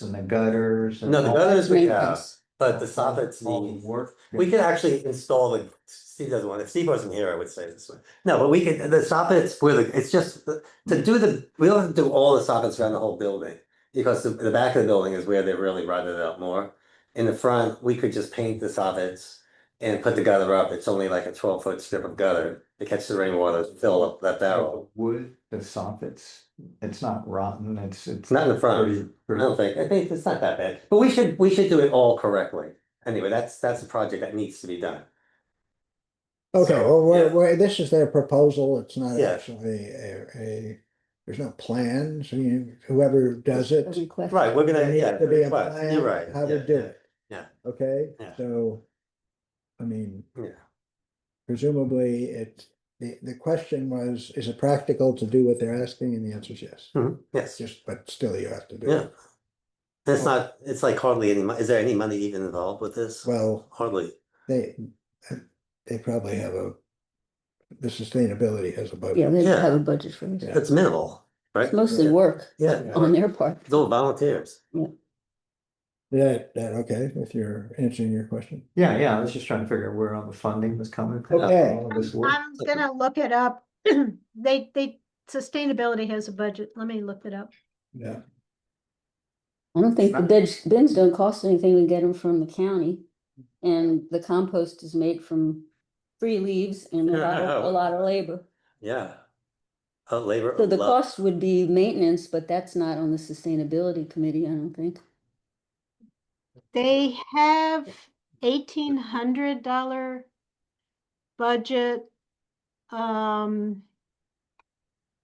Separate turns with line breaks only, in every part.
and the gutters. and
No, the
all-
gutters we have,
Maintenance.
but the soffits
all the
need,
Work.
we could actually install the, Steve doesn't want, if Steve wasn't here, I would say this one. No, but we could, the soffits, where the, it's just, uh, to do the, we don't have to do all the soffits around the whole building. Because the, the back of the building is where they really run it up more. In the front, we could just paint the soffits and put the gutter up. It's only like a twelve foot strip of gutter to catch the rainwater, fill up that barrel.
Wood, the soffits, it's not rotten, it's, it's.
It's not in the front.
pretty-
I
pretty-
don't think, I think it's not that bad, but we should, we should do it all correctly. Anyway, that's, that's a project that needs to be done.
Okay,
So,
well, we're,
yeah.
we're, this is their proposal, it's not
Yeah.
actually a, a, there's no plan, so you, whoever does it.
A request.
Right, we're
there
gonna,
needs
yeah,
to be a
request.
plan
you're right.
How to
yeah,
do
yeah,
it.
yeah.
Okay,
Yeah.
so, I mean.
Yeah.
Presumably, it, the, the question was, is it practical to do what they're asking, and the answer is yes,
Mhm, Yes,
just, but still you have to do
yeah.
it.
That's not, it's like hardly any, mo- is there any money even involved with this?
Well,
Hardly.
they, they probably have a, the sustainability has a
Yeah,
budget,
they
Yeah.
have a budget for it.
Yeah.
It's minimal, right?
It's mostly work
Yeah,
on their part.
it's all volunteers.
that, that, okay, if you're answering your question.
Yeah, yeah, I was just trying to figure out where all the funding was coming from.
Okay.
all of this work.
I'm gonna look it up. They, they, sustainability has a budget. Let me look it up.
Yeah.
I don't think the bins, bins don't cost anything. We get them from the county. And the compost is made from free leaves and a lot of, a lot of labor.
Yeah. Uh, labor.
So
of
the
love.
cost would be maintenance, but that's not on the sustainability committee, I don't think.
They have eighteen hundred dollar budget. Um.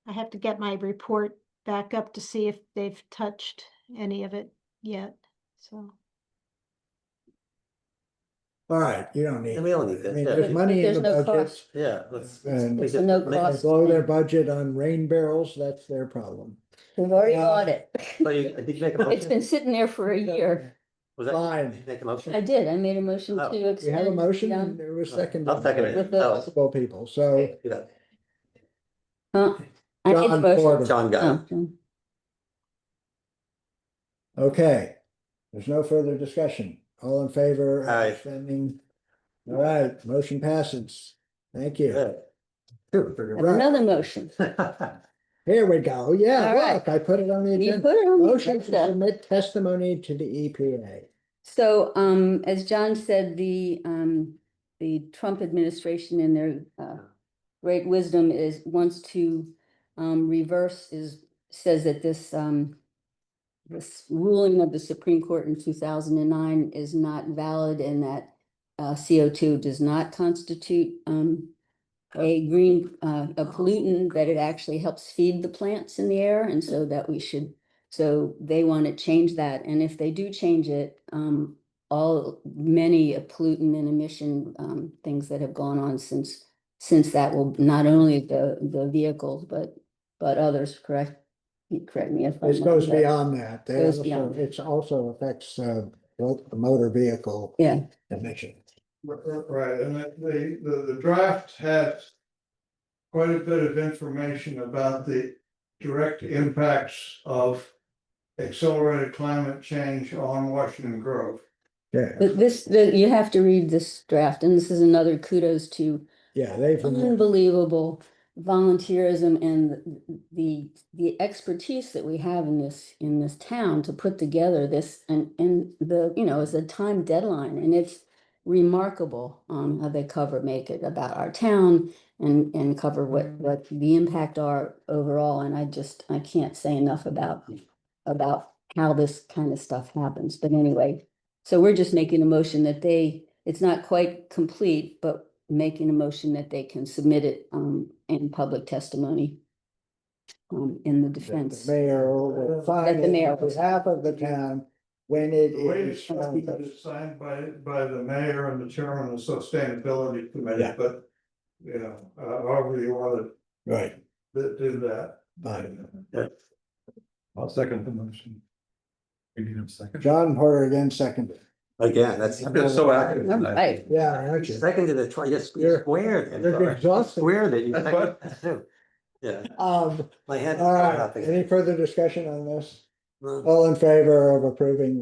I have to get my report back up to see if they've touched any of it yet, so.
All right, you don't need.
Yeah, we don't
that.
need that, yeah.
I mean, There's money
There's
in
no
the budget.
cost.
Yeah, let's.
And-
let's
So no
make-
cost.
They blow their budget on rain barrels, that's their problem.
We've already
Yeah.
got it.
So you, did you make a
It's
motion?
been sitting there for a year.
Was that,
Fine.
did you make a
I
motion?
did. I made a motion
Oh.
to
You have
extend.
a motion
yeah.
and it was seconded.
I'll second
by
it.
With the-
Oh,
Multiple people, so
do that.
Huh? I made a
John
motion.
Fordham,
John got it.
Oh, John.
okay. There's no further discussion. All in favor? of
Aye.
extending? All right, motion passes. Thank you.
Good.
Figure
I
out
have Another motion.
Here we go.
All
Yeah,
right.
look, I put it on the
You
agenda.
put it on the
Motion to
agenda.
submit testimony to the E EPA.
So, um, as John said, the, um, the Trump administration in their, uh, great wisdom is, wants to, um, reverse is, says that this, um, this ruling of the Supreme Court in two thousand and nine is not valid and that, uh, CO two does not constitute, um, a green, uh, a pollutant, that it actually helps feed the plants in the air and so that we should so they want to change that, and if they do change it, um, all, many pollutant and emission, um, things that have gone on since, since that will, not only the, the vehicles, but, but others, correct? You Correct me if I'm.
This goes
wrong, but-
beyond that. They
Oh, Goes
also-
beyond that.
It's also affects uh both the motor vehicle.
Yeah.
Emission.
R- r- Right, and it- the, the, the draft has. Quite a bit of information about the direct impacts of. Accelerated climate change on Washington Grove.
Yeah,
But this, the- you have to read this draft, and this is another kudos to
yeah, they've.
unbelievable volunteerism and the the expertise that we have in this in this town to put together this and and the you know is a time deadline and it's remarkable um how they cover make it about our town and and cover what what the impact are overall and I just I can't say enough about about how this kind of stuff happens but anyway so we're just making a motion that they, it's not quite complete, but making a motion that they can submit it um in public testimony. Um, in the
The
defense.
mayor will sign
That the
it
mayor
on
will-
behalf of the town when it
The way
is.
it's signed
signed.
is signed by, by the mayor and the chairman of the sustainability committee,
Yeah.
but. You know, uh, however you want
Right,
to do that.
fine.
I'll second the motion. We need a second.
John Porter again seconded.
Again, that's.
I've been so active.
All
tonight.
right.
Yeah, aren't you?
Second to the twenty, just
You're-
squared. I'm
You're
sorry.
exhausted.
Squared it. you
That's
seconded it too. Yeah,
Um,
my hand.
all right, any further discussion on this?
Well,
All in favor of approving